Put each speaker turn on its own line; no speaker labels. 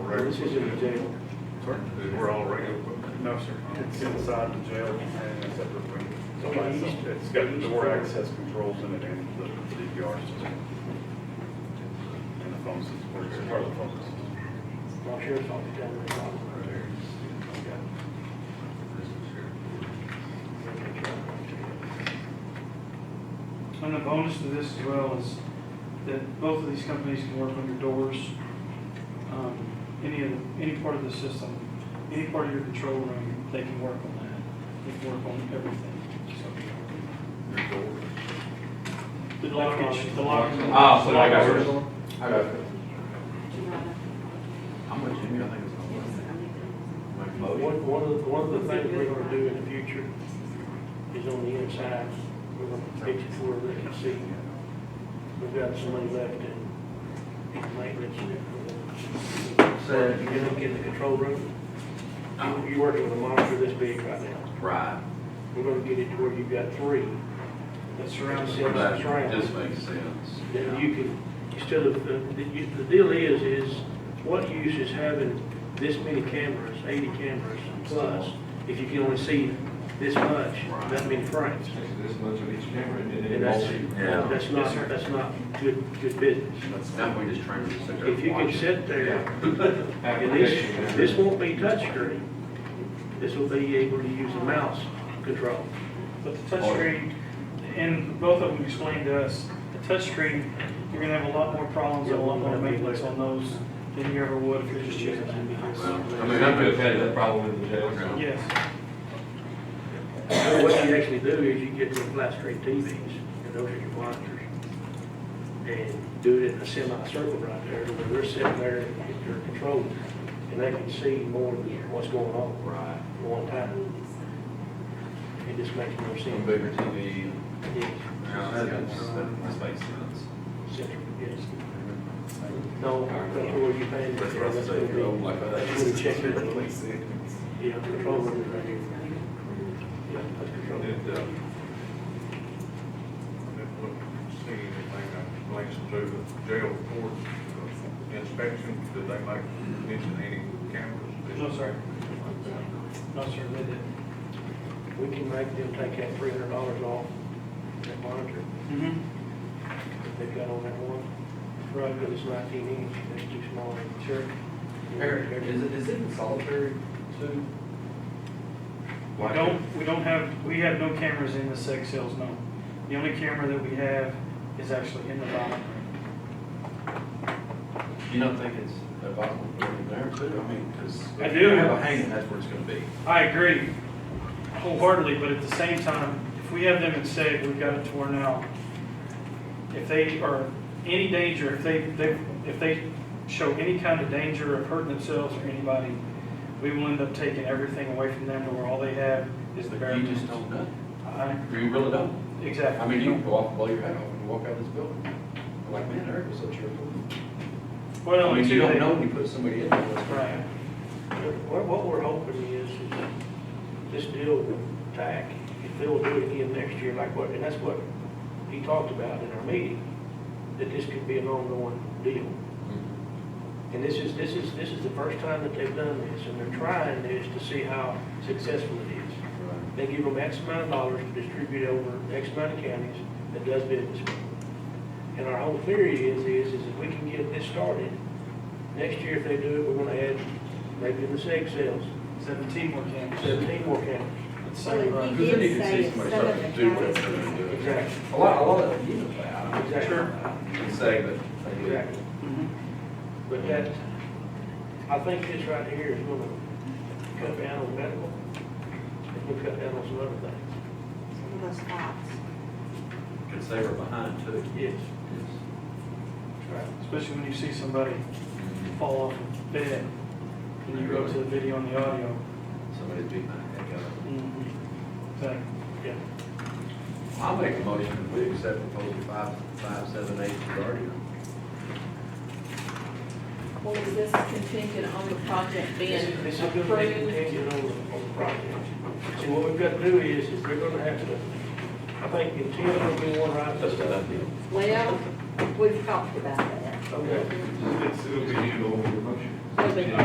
This is in the jail.
Sorry? We're all regular. folks.
No, sir, it's inside the jail and a separate wing. So
Okay.
it's- It's got door access controls in it and the DVR system. And the phone system, or it's part of the phone system.
My sheriff's office down there.
And the bonus to this as well is that both of these companies can work on your doors, um, any of, the- any part of the system, any part of your control room, they can work on that. They can work on everything, so.
Your door.
The lock, is- the lock. is-
Ah, so I got yours. I got it.
How much do you think
One, one of, the- one of the things we're gonna do in the future is on the inside, we're gonna fix it where they can see. We've got some money left in maintenance. So if you get up in the control room, you- you're working with a monitor this big right now.
Right.
We're gonna get it to where you've got three.
That surrounds it.
That's right.
That just makes sense.
Then you can, instead of, the, the- the deal is, is what use is having this many cameras, eighty cameras plus, if you can only see this much, that many frames?
This much of each camera, and
And
it
that's,
all be-
Yeah.
that's not, that's not good, good business.
Now we just train them to sit there
If you
and
can
watch.
sit there, and this,
application.
this won't be touchscreen, this will be able to use a mouse control.
But the touchscreen, and both of them explained to us, the touchscreen, you're gonna have a lot more problems and a lot more maintenance on those than you ever would if you're just using that.
Well,
I mean, I could have had that problem in the jail.
Okay.
Yes,
So What you actually do is you get the flat screen TVs, and those are your monitors, and do it in a semicircle right there, to where they're sitting there and get their control, and they can see more of what's going on
Right.
at one time. It just makes more
Some
sense.
bigger TV.
Yes,
Yeah, that that makes sense.
central, yes. No, that's where you pay.
That's what I was saying, you're old like that.
That's where you check it.
That makes sense.
Yeah, control room right here. Yeah, that's control room.
Did, uh, see anything that relates to the jail court inspection? Did they make mention any cameras?
no, sir, no, sir, they didn't.
We can make them take that three hundred dollars off that monitor
Mm-hmm,
that they've got on that one,
right,
because it's nineteen inch, that's too small.
sure.
Eric,
is it, is it in solitary too?
We don't, we don't have, we have no cameras in the sex cells, no. The only camera that we have is actually in the bottom.
You don't think it's a bottom building there too? I mean, because.
I do.
Have a hanging, that's where it's gonna be.
I agree wholeheartedly, but at the same time, if we have them in SEG, we've got it to where now, if they are any danger, if they, they, if they show any kind of danger of hurting themselves or anybody, we will end up taking everything away from them to where all they have is the bare
You just
minimum.
don't know.
I-
You really don't. I
Exactly.
mean, you can go off and blow your head off when you walk out of this building. Like, man, Eric was up here.
Well,
I mean,
and
you
two,
don't
they,
know when you put somebody in there. what's gonna
right.
happen.
What, what we're hoping is, is this deal with TAC, if they'll do it again next year, like what, and that's what he talked about in our meeting, that this could be an ongoing deal. And this is, this is, this is the first time that they've done this, and they're trying this to see how successful it is. They give them X amount of dollars to distribute over X amount of counties that does business. with them. And our whole theory is, is, is if we can get this started, next year if they do it, we're gonna add, maybe in the seg sales,
Seventeen more cameras.
seventeen more counties.
It's
Well,
same, right.
he
Because then you
did
can
say
see somebody
some of
starting to
the
do what they're
counties-
gonna do.
Exactly,
A lot, a lot of, you know that.
Exactly.
And say, but.
exactly.
Mm-hmm.
Mhm.
But that, I think this right here is gonna cut down on medical, and will cut down on some other things.
Some of those spots.
Can say we're behind too.
Yes.
Yes.
Right.
Especially when you see somebody fall off a bed and you go to the video and the audio.
Somebody's beating the heck out of them.
Exactly.
Yeah.
I'll make a motion that we accept proposal five, five, seven, eight, Guardian.
Well, is this contingent on the project
This
being
is- This is gonna be
approved?
contingent on the, on the project. And what we've got to do is, is we're gonna have to, I think intent will be one right.
That's what I feel.
Well, we've talked about that.
Okay.
It's, it'll be handled over your motion.
It'll be-